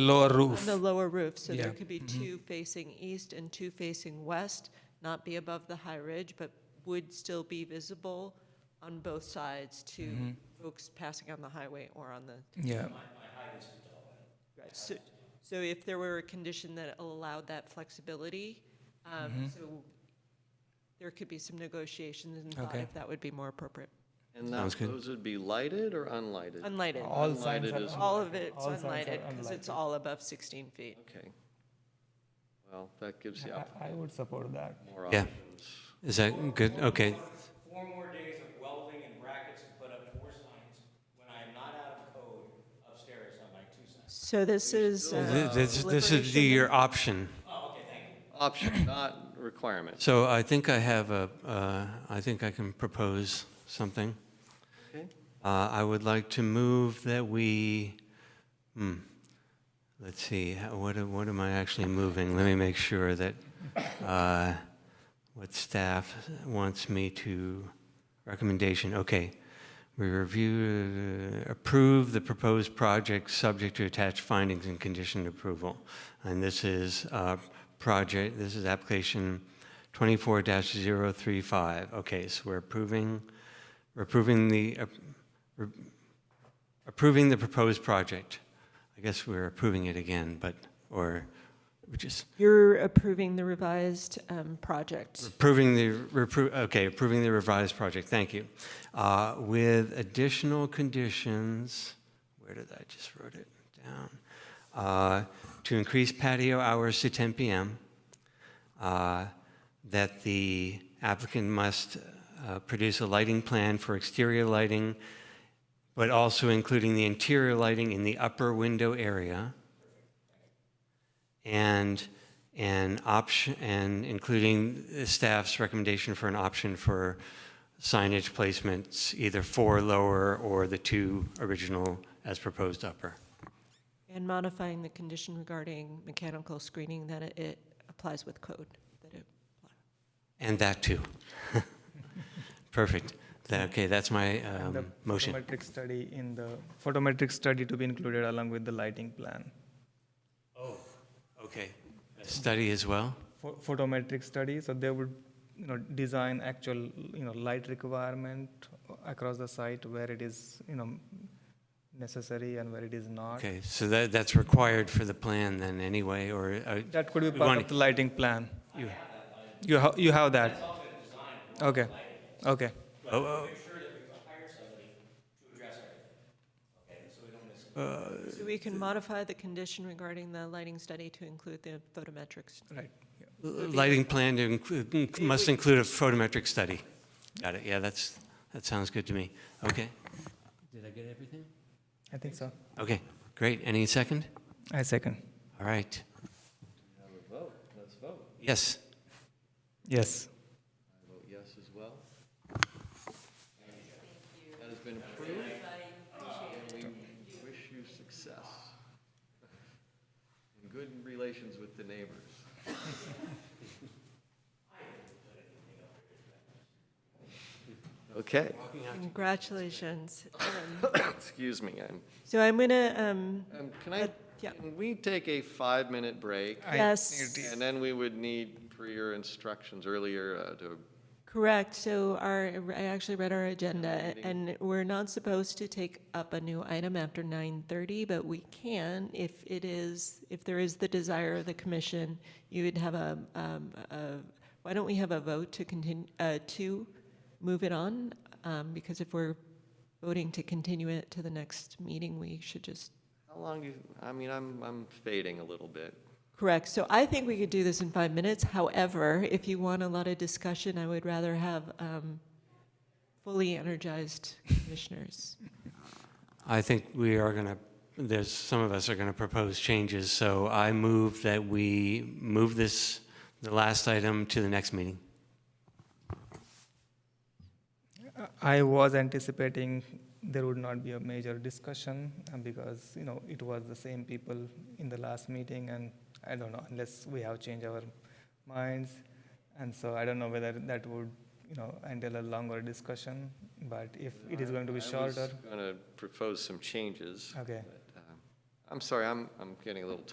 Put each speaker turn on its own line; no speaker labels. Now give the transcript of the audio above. lower
on
roof.
the lower roof, so there
Yeah.
could be two facing east and two facing west, not be above the high ridge, but would still be visible on both sides to folks passing on the highway or on the,
Yeah,
so, so if there were a condition that allowed that flexibility, um, so there could be some negotiations and thought
Okay.
if that would be more appropriate.
And that, those would be lighted or unlighted?
Unlighted,
All signs
Unlighted
are
is-
all of it's
all signs are
unlighted, because
unlighted.
it's all above sixteen feet.
Okay. Well, that gives you
I, I would support that.
more
Yeah.
options.
Is that good? Okay.
four more days of welding and brackets to put up four signs when I am not out of code upstairs on my two signs.
So this is. uh,
Th- This, this is the,
Liberation.
your option.
Option, not requirement.
So I think I have a, uh, I think I can propose something.
Okay.
Uh, I would like to move that we, hmm, let's see, how- what, am- what am I actually moving? Let me make sure that, uh, what staff wants me to, recommendation, okay. We review, uh, approve the proposed project subject to attached findings and conditioned approval. And this is, uh, project, this is application twenty-four 35 Okay, so we're approving, we're approving the, uh, approving the proposed project. I guess we're approving it again, but, or we just
You're approving the revised um, project.
approving the, repro- okay, approving the revised project, thank you. Uh, With additional conditions, where did I, just wrote it down. Uh, To increase patio hours to 10 PM, uh, that the applicant must uh, produce a lighting plan for exterior lighting, but also including the interior lighting in the upper window area and an option, and including the staff's recommendation for an option for signage placements, either for lower or the two original as proposed upper.
And modifying the condition regarding mechanical screening that it- it applies with code. that it-
And that too. Perfect. That, okay, that's my um,
The
motion.
Photometric study in the, photometric study to be included along with the lighting plan.
Oh, okay. Study as well?
Pho- Photometric study, so they would, you know, design actual, you know, light requirement across the site where it is, you know, necessary and where it is not.
Okay, so that, that's required for the plan then anyway, or? uh,
That could be
we
part
want-
of the lighting plan. You You have, you have that? Okay, okay.
oh,
So we can modify the condition regarding the lighting study to include the photometrics.
Right.
oh, Lighting plan to include, must include a photometric study. Got it, yeah, that's, that sounds good to me. Okay. Did I get everything?
I think so.
Okay, great. Any second?
I second.
All right.
Have a vote, let's vote.
Yes.
Yes.
I vote yes as well. That has been approved. And we wish you success. And good relations with the neighbors. Okay,
Congratulations. Um,
excuse me, I'm,
So I'm going to,
um, can I,
Uh, yeah.
can we take a five-minute break?
I-
Yes.
it is.
And then we would need, per your instructions earlier, uh, to,
correct, so our, I actually read our agenda, and we're not supposed to take up a new item after 9:30, but we can if it is, if there is the desire of the commission, you would have a, um, a, why don't we have a vote to continue, uh, to move it on? Um, because if we're voting to continue it to the next meeting, we should just,
how long do you, I mean, I'm, I'm fading a little bit.
correct. So I think we could do this in five minutes. However, if you want a lot of discussion, I would rather have, um, fully energized commissioners.
I think we are going to, there's, some of us are going to propose changes, so I move that we move this, the last item to the next meeting.
I was anticipating there would not be a major discussion uh, because, you know, it was the same people in the last meeting and I don't know, unless we have changed our minds. And so I don't know whether that would, you know, entail a longer discussion, but if it is going to be
I was
shorter,
going to propose some changes.
okay.
but, um, I'm sorry, I'm, I'm getting a little